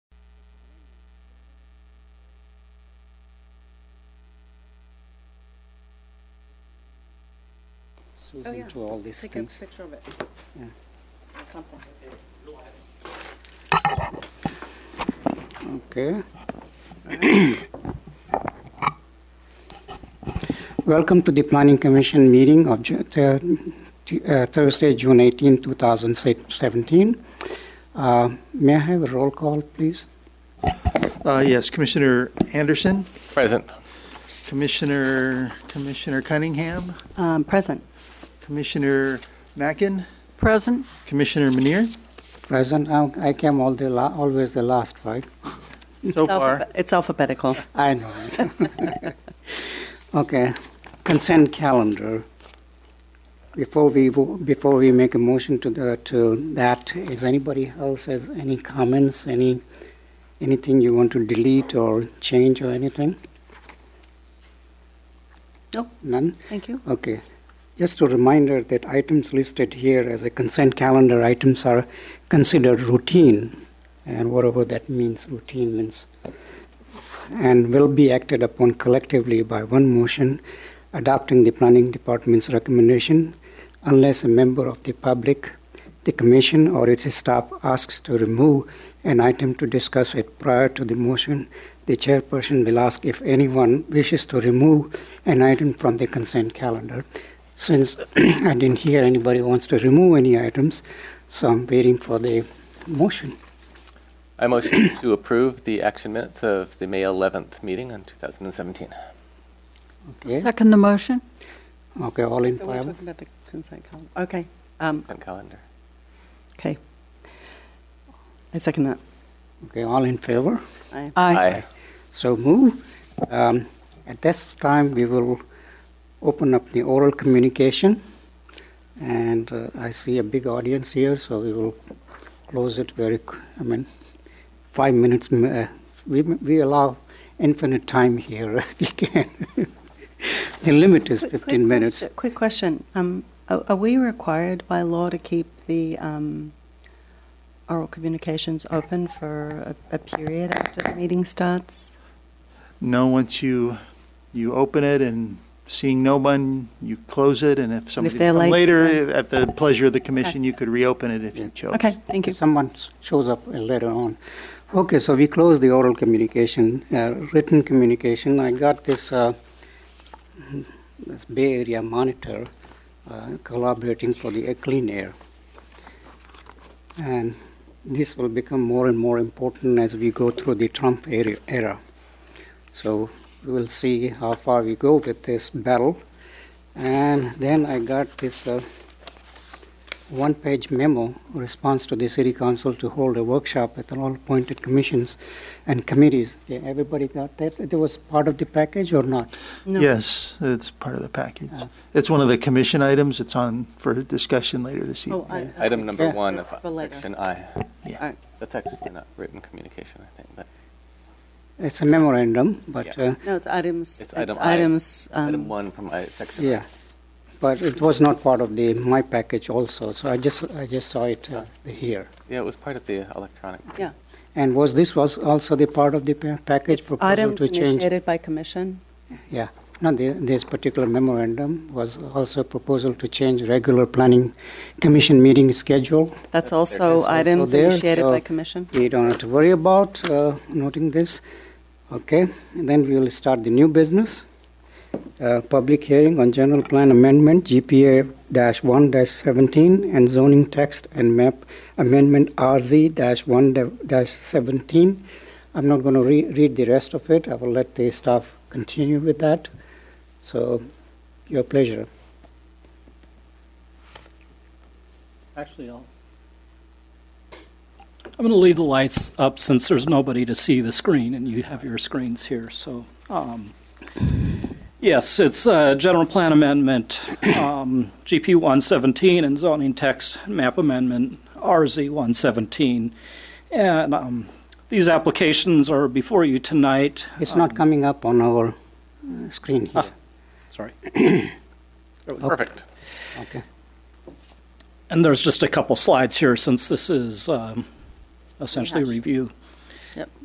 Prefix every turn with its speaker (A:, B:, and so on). A: look into all these
B: Take a
A: things.
B: picture of it.
A: Yeah.
B: Or Something.
A: Okay. Welcome to the Planning Commission meeting of Ju- Thur- T- uh, Thursday, June 18, 2017. Uh, May I have a roll call, please?
C: Uh, Yes, Commissioner Anderson,
D: Present.
C: Commissioner, Commissioner Cunningham,
B: Um, present.
C: Commissioner Mackin,
B: Present.
C: Commissioner Minier,
A: Present, I I came all the, la- always the last, right?
C: so far.
B: It's alphabetical.
A: I know. it. Okay, consent calendar. Before we, vo- before we make a motion to the, to that, is anybody else has any comments, any, anything you want to delete or change or anything?
B: Nope.
A: None?
B: Thank you.
A: Okay. Just a reminder that items listed here as a consent calendar items are considered routine, and whatever that means, routine means, and will be acted upon collectively by one motion adopting the planning department's recommendation unless a member of the public, the commission, or its staff asks to remove an item to discuss it prior to the motion, the chairperson will ask if anyone wishes to remove an item from the consent calendar. Since I didn't hear anybody wants to remove any items, so I'm waiting for the motion.
D: I motion to approve the action minutes of the May 11th meeting on 2017.
A: Okay,
E: Second the motion?
A: okay, all in
B: So we're
A: favor?
B: talking about the consent column. Okay. Um,
D: Consent calendar.
B: okay. I second that.
A: Okay, all in favor?
B: I,
D: Aye.
A: So move. Um, At this time, we will open up the oral communication. And uh, I see a big audience here, so we will close it very, qu- I mean, five minutes. m- uh, We we allow infinite time here if we can. The limit is
B: Quick- quick
A: 15 minutes.
B: question- Quick question. Um, are, are we required by law to keep the, um, oral communications open for a, a period after the meeting starts?
C: No, once you, you open it and seeing no one, you close it, and if somebody
B: they're
C: come
B: late,
C: later, at the pleasure of the commission, you could reopen it if you chose.
B: Okay, thank you.
A: If someone s- shows up later on. Okay, so we close the oral communication, uh, written communication. I got this, uh, this Bay Area monitor uh, collaborating for the clean air. And this will become more and more important as we go through the Trump era. era. So we will see how far we go with this battle. And then I got this. Uh, one-page memo, response to the city council to hold a workshop with all appointed commissions and committees. Yeah, Everybody got that? That was part of the package or not?
B: No.
C: Yes, it's part of the package.
A: Oh.
C: It's one of the commission items. It's on for discussion later this
B: Oh, I-
C: evening.
D: Item number
A: Yeah.
D: one of
B: That's for later.
D: section I.
B: All right.
D: That's actually not written communication, I think, but
A: It's a memorandum, but,
D: Yeah.
A: uh,
B: No, it's items, it's
D: it's item I.
B: items.
D: Item
B: um,
D: one from I, section. I.
A: yeah. But it was not part of the, my package also, so I just, I just saw it uh, here.
D: Yeah, it was part of the electronic.
B: Yeah.
A: And was, this was also the part of the pa- package proposal
B: Items
A: to change?
B: initiated by commission.
A: Yeah, no, the- this particular memorandum was also a proposal to change regular planning commission meeting schedule
B: That's also
A: is also
B: items
A: there,
B: initiated by
A: so-
B: commission.
A: We don't have to worry about uh, noting this. Okay, and then we will start the new business. Uh, Public hearing on general plan amendment, GPA-1-17, and zoning text and map amendment, RZ-1-17. I'm not going to read the rest of it. I will let the staff continue with that. So, your pleasure.
F: Actually, I'll. I'm going to leave the lights up since there's nobody to see the screen, and you have your screens here, so. um, Yes, it's a general plan amendment, um, GP 117, and zoning text map amendment, RZ 117. And um, these applications are before you tonight.
A: It's not coming up on our uh, screen here.
F: Uh, Sorry.
D: Perfect.
A: Okay.
F: And there's just a couple slides here since this is um, essentially review.
B: Yep.